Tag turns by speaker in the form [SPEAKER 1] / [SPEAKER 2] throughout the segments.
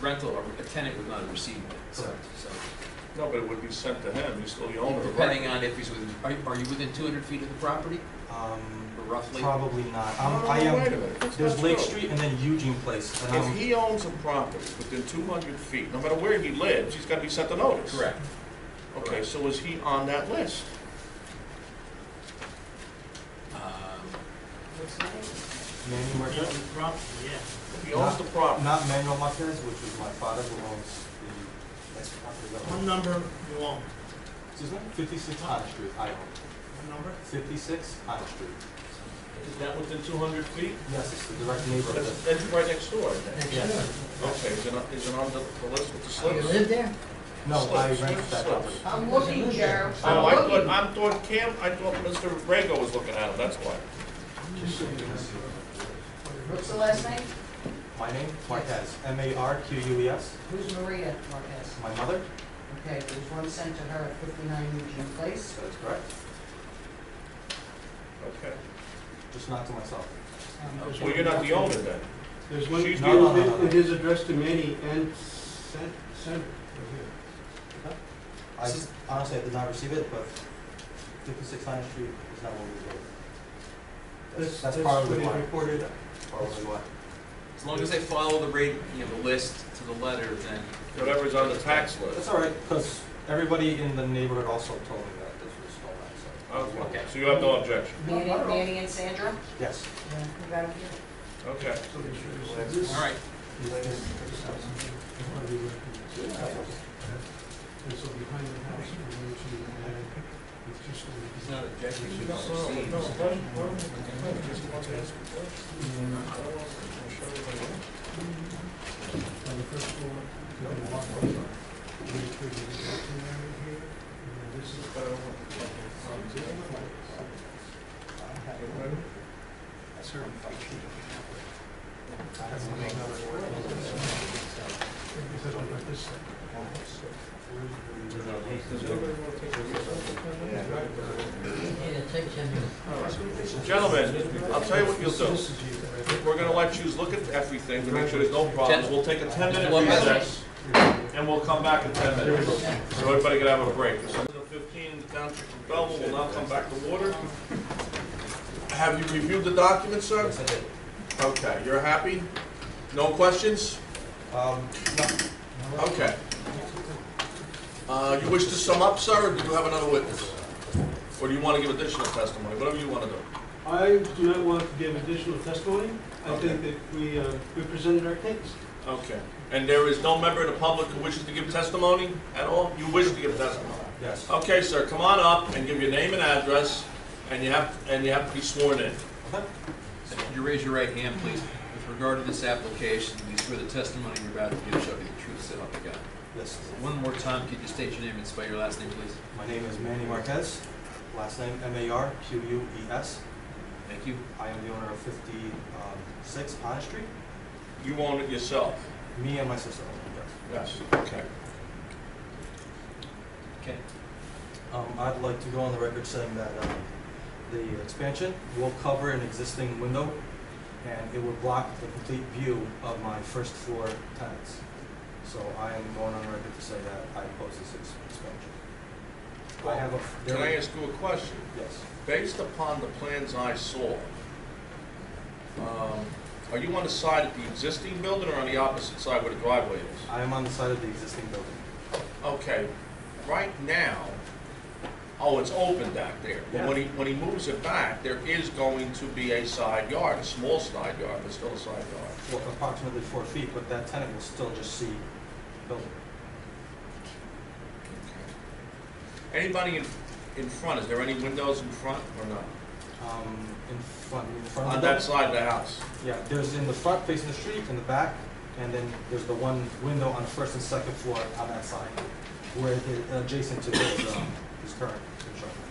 [SPEAKER 1] rental or a tenant would not have received it, so,
[SPEAKER 2] Correct.
[SPEAKER 1] so.
[SPEAKER 3] No, but it would be sent to him, he's still the owner. right?
[SPEAKER 1] Depending on if he's within, are, are you within two hundred feet of the property,
[SPEAKER 2] Um,
[SPEAKER 1] or roughly?
[SPEAKER 2] probably not.
[SPEAKER 3] No, no,
[SPEAKER 2] I'm, I
[SPEAKER 3] no, Oh, wait a
[SPEAKER 2] am,
[SPEAKER 3] minute. That's
[SPEAKER 2] there's
[SPEAKER 3] not
[SPEAKER 2] Lake
[SPEAKER 3] true.
[SPEAKER 2] Street um, and then Eugene Place, and
[SPEAKER 3] If
[SPEAKER 2] I'm,
[SPEAKER 3] he owns a property within two hundred feet, no matter where he lives, he's gotta be sent a notice.
[SPEAKER 1] Correct.
[SPEAKER 3] Okay, so is he on that list?
[SPEAKER 1] Um,
[SPEAKER 2] Manuel
[SPEAKER 4] Yeah,
[SPEAKER 2] Marquez.
[SPEAKER 4] property, yeah.
[SPEAKER 3] If he owns the property,
[SPEAKER 2] Not Manuel Marquez, which was my father who owns the, that's the property that
[SPEAKER 4] One
[SPEAKER 2] owns.
[SPEAKER 4] number you own,
[SPEAKER 2] Excuse me? Fifty-six Otter Street, I own.
[SPEAKER 4] one number?
[SPEAKER 2] Fifty-six Otter Street.
[SPEAKER 3] is that within two hundred feet?
[SPEAKER 2] Yes, it's the direct neighborhood.
[SPEAKER 3] That's, that's right next door, isn't it?
[SPEAKER 2] Yes.
[SPEAKER 3] Okay, is it, on- is it on the, the list with the
[SPEAKER 2] Oh,
[SPEAKER 5] You
[SPEAKER 3] slips?
[SPEAKER 5] live there?
[SPEAKER 2] No, I
[SPEAKER 3] Slips,
[SPEAKER 2] rented that
[SPEAKER 3] slips.
[SPEAKER 2] property.
[SPEAKER 5] I'm looking, Joe.
[SPEAKER 3] Oh, I thought, I thought Cam, I thought Mr. Rego was looking at it, that's why.
[SPEAKER 5] What's the last name?
[SPEAKER 2] My name, Marquez, M-A-R-Q-U-E-S.
[SPEAKER 5] Who's Maria Marquez?
[SPEAKER 2] E My mother,
[SPEAKER 5] Okay, there's one sent to her at 59 Eugene Place.
[SPEAKER 2] that is correct,
[SPEAKER 3] Okay.
[SPEAKER 2] just not to myself.
[SPEAKER 5] Um,
[SPEAKER 3] Well, you're not the owner then.
[SPEAKER 6] There's one,
[SPEAKER 3] She's
[SPEAKER 6] it
[SPEAKER 2] not on
[SPEAKER 6] is-
[SPEAKER 2] that.
[SPEAKER 6] it is addressed to Manny and sent, sent right
[SPEAKER 2] I honestly, I did not receive it, but fifty-six Lion Street is not what we did.
[SPEAKER 6] here.
[SPEAKER 2] That's, that's probably
[SPEAKER 6] what
[SPEAKER 2] why,
[SPEAKER 6] is reported.
[SPEAKER 2] probably why.
[SPEAKER 1] As long as they follow the rate, you know, the list to the letter, then.
[SPEAKER 3] Whatever's on the tax
[SPEAKER 2] That's
[SPEAKER 3] list.
[SPEAKER 2] all right, because everybody in the neighborhood also told me that this was stolen, so.
[SPEAKER 3] Oh, Okay, so you have no objection?
[SPEAKER 5] Manny, Manny and Sandra?
[SPEAKER 2] Yes.
[SPEAKER 5] Yeah, who got 'em here?
[SPEAKER 3] Okay.
[SPEAKER 1] All right,
[SPEAKER 6] And so behind the house, we need to add, it's just.
[SPEAKER 1] he's not objecting, he
[SPEAKER 3] No,
[SPEAKER 1] just
[SPEAKER 3] no,
[SPEAKER 1] proceeds.
[SPEAKER 3] no, why- why don't we complain? Just want to ask a question. I don't want to- I'm sure everybody else.
[SPEAKER 6] On the first floor, you have a walk up. We could do the kitchen area here, and then this is.
[SPEAKER 3] But I don't want to complain. Um, do you have a problem?
[SPEAKER 6] Is it on like this side?
[SPEAKER 3] Does anybody want to take a look? Gentlemen, I'll tell you what you'll do.
[SPEAKER 6] This is you, right?
[SPEAKER 3] We're gonna let you look at everything to make sure there's no problems. We'll take a ten-minute
[SPEAKER 1] One minute.
[SPEAKER 3] recess, and we'll come back in ten minutes. So everybody can have a break. This is fifteen, the township of Belleville will now come back to order. Have you reviewed the documents, sir?
[SPEAKER 2] Yes, I did.
[SPEAKER 3] Okay, you're happy? No questions?
[SPEAKER 2] Um, no,
[SPEAKER 3] Okay. Uh, you wish to sum up, sir, or do you have another witness? Or do you want to give additional testimony, whatever you want to do?
[SPEAKER 6] I do not want to give additional testimony. I
[SPEAKER 3] Okay.
[SPEAKER 6] think that we, uh, we presented our case.
[SPEAKER 3] Okay. And there is no member of the public who wishes to give testimony at all? You wish to give testimony?
[SPEAKER 2] yes,
[SPEAKER 3] Okay, sir, come on up and give your name and address, and you have, and you have to be sworn in.
[SPEAKER 2] okay,
[SPEAKER 1] Could you raise your right hand, please? With regard to this application, you swear the testimony you're about to give shall be the truth, so help you God.
[SPEAKER 2] yes.
[SPEAKER 1] One more time, could you state your name and spell your last name, please?
[SPEAKER 2] My name is Manny Marquez, last name M-A-R-Q-U-E-S.
[SPEAKER 1] Thank you.
[SPEAKER 2] E I am the owner of fifty-six Otter Street,
[SPEAKER 3] You own it yourself?
[SPEAKER 2] me and my sister own it, yes.
[SPEAKER 3] Yes. Okay.
[SPEAKER 1] Okay.
[SPEAKER 2] Um, I'd like to go on the record saying that, um, the expansion will cover an existing window, and it will block the complete view of my first floor tenants. So I am going on record to say that I oppose this ex- expansion. I have a.
[SPEAKER 3] Can I ask you a question?
[SPEAKER 2] Yes,
[SPEAKER 3] Based upon the plans I saw, um, are you on the side of the existing building or on the opposite side where the driveway is?
[SPEAKER 2] I am on the side of the existing building.
[SPEAKER 3] Okay, right now, oh, it's open back there. But when he, when he moves it back, there is going to be a side yard, a small side yard, but still a side yard.
[SPEAKER 2] Well, approximately four feet, but that tenant will still just see the building.
[SPEAKER 3] Anybody in, in front, is there any windows in front or not?
[SPEAKER 2] Um, in front, in front of the
[SPEAKER 3] On
[SPEAKER 2] building.
[SPEAKER 3] that side of the house?
[SPEAKER 2] Yeah, there's in the front facing the street, in the back, and then there's the one window on the first and second floor on that side, where the, adjacent to his, um, his current construction.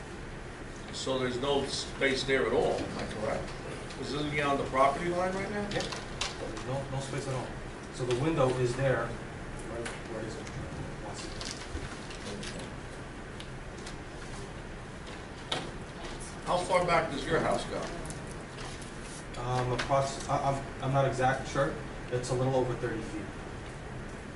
[SPEAKER 3] So there's no space there at all, am I correct? Because isn't he on the property line right now?
[SPEAKER 2] Yeah, there's no, no space at all. So the window is there, right, where is it? One second.
[SPEAKER 3] How far back does your house go?
[SPEAKER 2] Um, approx, I, I'm, I'm not exact sure, it's a little over thirty feet.